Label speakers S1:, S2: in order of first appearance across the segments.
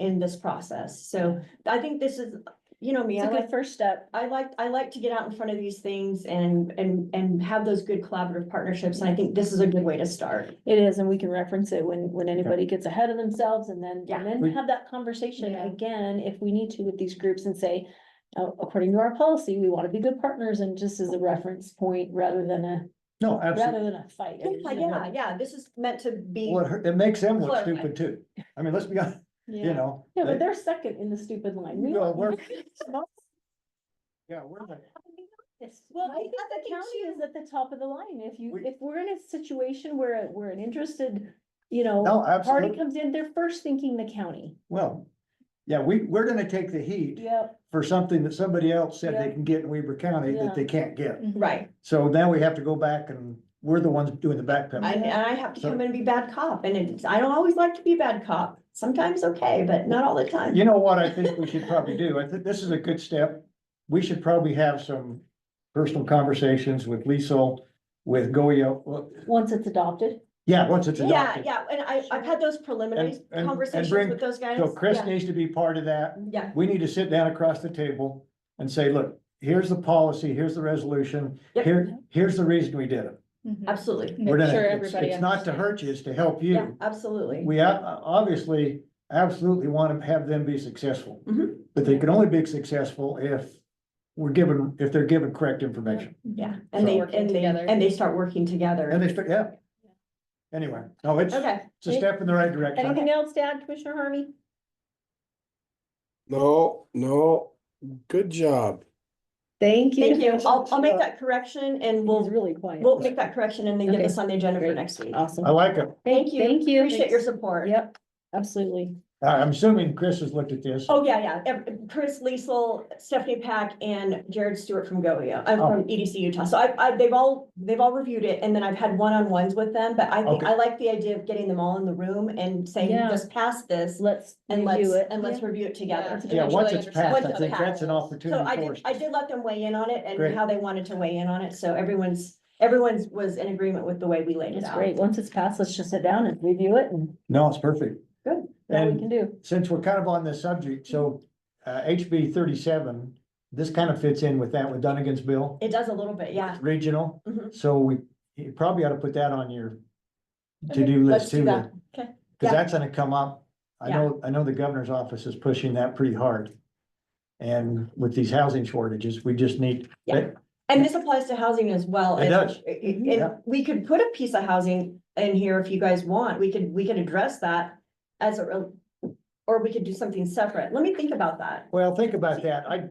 S1: in this process. So I think this is, you know me,
S2: It's
S1: I
S2: a
S1: like,
S2: good first step.
S1: I like, I like to get out in front of these things and, and, and have those good collaborative partnerships. And I think this is a good way to start.
S2: It is, and we can reference it when, when anybody gets ahead of themselves and then,
S1: Yeah.
S2: and then
S3: We-
S2: have that conversation
S1: Yeah.
S2: again, if we need to with these groups and say, "Oh, according to our policy, we want to be good partners and just as a reference point rather than a,
S3: No, absolutely.
S2: rather than a fight.
S1: Yeah, yeah, yeah, this is meant to be.
S3: Well, it hurt- it makes them look
S1: Clarify.
S3: stupid too. I mean, let's be honest, you
S2: Yeah,
S3: know.
S2: Yeah, but
S3: they-
S2: they're second in the stupid line. We
S3: No,
S2: want-
S3: we're- Yeah, we're the-
S2: Well, I think
S1: I think
S2: the county
S1: too.
S2: is at the top of the line. If you,
S3: We-
S2: if we're in a situation where, we're an interested, you know,
S3: No,
S2: party
S3: absolutely.
S2: comes in, they're first thinking the county.
S3: Well, yeah, we, we're gonna take the heat
S2: Yep.
S3: for something that somebody else said they
S2: Yeah.
S3: can get in Weber County
S2: Yeah.
S3: that they can't get.
S1: Right.
S3: So now we have to go back and we're the ones doing the back
S1: I,
S3: pedal.
S1: and I have to
S3: So-
S1: come in and be bad cop and it's, I don't always like to be bad cop. Sometimes okay, but not all the time.
S3: You know what I think we should probably do? I think this is a good step. We should probably have some personal conversations with Liesel, with Goyo. Well,
S2: Once it's adopted,
S3: Yeah, once it's
S1: Yeah,
S3: adopted.
S1: yeah, and I, I've had those preliminary
S3: And- and- and
S1: conversations
S3: bring-
S1: with those guys.
S3: So Chris
S1: Yeah,
S3: needs to be part of that.
S1: Yeah,
S3: we need to sit down across the table and say, look, here's the policy, here's the resolution,
S1: Yep.
S3: here, here's the reason we did it.
S1: Mm-hmm. absolutely.
S3: We're
S4: Make
S3: gonna-
S4: sure
S3: it's,
S4: everybody
S3: it's not to hurt you, it's to help
S1: Yeah,
S3: you.
S1: absolutely.
S3: We ob- obviously, absolutely want to have them be successful.
S1: Mhm.
S3: But they can only be successful if we're given, if they're given correct information.
S1: Yeah, and they,
S4: Working
S1: and they,
S4: together.
S1: and they start working
S3: And
S1: together.
S3: they, start- yeah. Anyway, no, it's, it's
S1: Okay,
S3: a step in the right direction.
S2: anything else to add, Commissioner Harvey?
S5: No, no, good job.
S2: Thank
S1: thank you. I'll, I'll make that correction and
S2: He's
S1: we'll,
S2: really quiet.
S1: we'll make that correction and then get
S2: Okay.
S1: this on the agenda for
S2: Great.
S1: next week.
S2: Awesome.
S3: I like it.
S1: Thank you.
S2: Thank you.
S1: Appreciate your support.
S2: Yep, absolutely.
S3: I- I'm assuming Chris has looked at this.
S1: Oh, yeah, yeah. Ev- Chris Liesel, Stephanie Pack and Jared Stewart from GOEO, I'm
S3: Oh.
S1: from EDC Utah. So I, I, they've all, they've all reviewed it and then I've had one-on-ones with them. But I think,
S3: Okay.
S1: I like the idea of getting them all in the room and saying,
S2: Yeah.
S1: just pass this
S2: Let's
S1: and let's,
S2: review it.
S1: and let's review it together.
S3: Yeah, once it's passed, I
S1: Once it's
S3: think that's an
S4: passed.
S1: So I
S3: opportunity for us.
S1: did, I did let them weigh in on it
S3: Great.
S1: and how they wanted to weigh in on it. So everyone's, everyone's was in agreement with the way we laid it
S2: It's
S1: out.
S2: great. Once it's passed, let's just sit down and review it and
S3: No, it's perfect.
S1: Good.
S2: that we
S3: And
S2: can do.
S3: since we're kind of on this subject, so uh HB thirty-seven, this kind of fits in with that with Dunnigan's bill,
S1: It does a little bit, yeah.
S3: regional.
S1: Mhm.
S3: So we, you probably ought to put that on your to-do
S1: let's
S3: list
S1: do
S3: too.
S1: that. Okay. Yeah.
S3: Cause that's gonna come up. I
S1: Yeah.
S3: know, I know the governor's office is pushing that pretty hard. And with these housing shortages, we just need,
S1: And this applies to housing as well.
S3: It
S1: and-
S3: does. Mm-hmm.
S1: And
S3: Yeah.
S1: we could put a piece of housing in here if you guys want. We could, we could address that as a, rel- or we could do something separate. Let me think about that.
S3: well, think about that. I,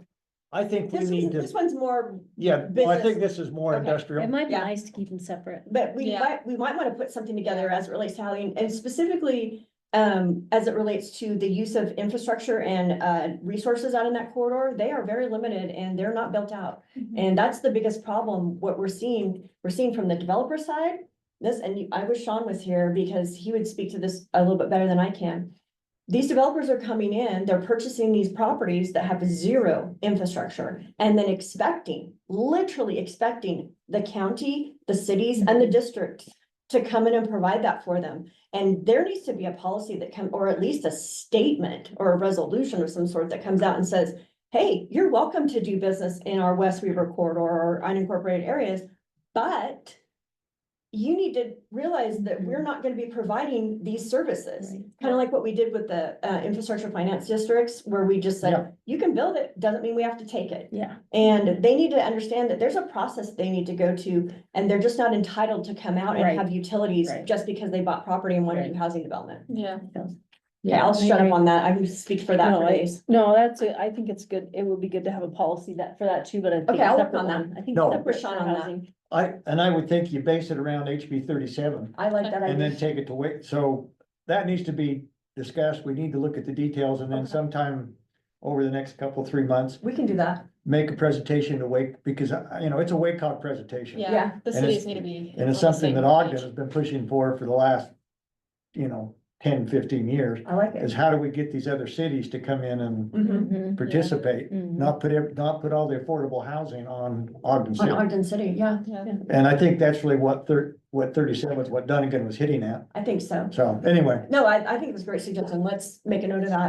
S3: I think
S1: This
S3: we
S1: one's,
S3: need
S1: this
S3: to,
S1: one's more,
S3: yeah, well, I
S1: business.
S3: think this is more
S1: Okay.
S3: industrial.
S2: It might be
S1: Yeah.
S2: nice to keep them separate.
S1: but we
S4: Yeah.
S1: might, we might want to put something together as it relates to housing and specifically um, as it relates to the use of infrastructure and uh, resources out in that corridor. They are very limited and they're not built out. And that's the biggest problem, what we're seeing, we're seeing from the developer side, this, and you- I wish Sean was here because he would speak to this a little bit better than I can. These developers are coming in, they're purchasing these properties that have zero infrastructure and then expecting, literally expecting the county, the cities and the district to come in and provide that for them. And there needs to be a policy that come, or at least a statement or a resolution of some sort that comes out and says, hey, you're welcome to do business in our West Weaver corridor or unincorporated areas, but you need to realize that we're not gonna be providing these services.
S2: Right.
S1: Kind of like what we did with the uh infrastructure finance districts, where we just
S3: Yeah.
S1: said, you can build it, doesn't mean we have to take it.
S2: Yeah,
S1: And they need to understand that there's a process they need to go to, and they're just not entitled to come out and
S2: Right.
S1: have utilities
S2: Right.
S1: just because they bought property and wanted to do
S2: Right.
S1: housing development.
S4: Yeah.
S1: Yeah, I'll
S2: I
S1: shut up
S2: agree.
S1: on that. I can speak for that
S2: No,
S1: for
S2: I-
S1: days.
S2: No, that's, a- I think it's good. It would be good to have a policy that, for that too, but I think.
S1: Okay, I'll work
S2: separate
S1: on that.
S2: one. I think.
S3: No.
S2: separate
S1: We're shot
S2: for
S1: on that.
S2: housing.
S3: I, and I would think you base it around HB thirty-seven.
S1: I like that
S3: And then
S1: idea.
S3: take it to wait, so that needs to be discussed, we need to look at the details and then
S1: Okay.
S3: sometime over the next couple, three months,
S1: We can do that.
S3: make a presentation to Wake, because, uh, you know, it's a Wake-Hog presentation.
S4: Yeah,
S1: Yeah.
S4: the
S3: And it's-
S4: cities need to be.
S3: And it's
S4: on the
S3: something
S4: same
S3: that Ogden
S4: page.
S3: has been pushing for for the last, you know, 10, 15 years,
S1: I like
S3: is
S1: it.
S3: how do we get these other cities to come in and
S1: Mhm.
S2: Mm-hmm.
S3: participate?
S2: Mhm.
S3: Not put, ev- not put all the affordable housing on Ogden
S1: On
S3: City.
S1: Ogden City, yeah,
S4: Yeah.
S3: And I think that's really what thir, what thirty-seven, was what Dunnigan was hitting at,
S1: I think so.
S3: so anyway.
S1: No, I, I think it was a great suggestion. Let's make a note of that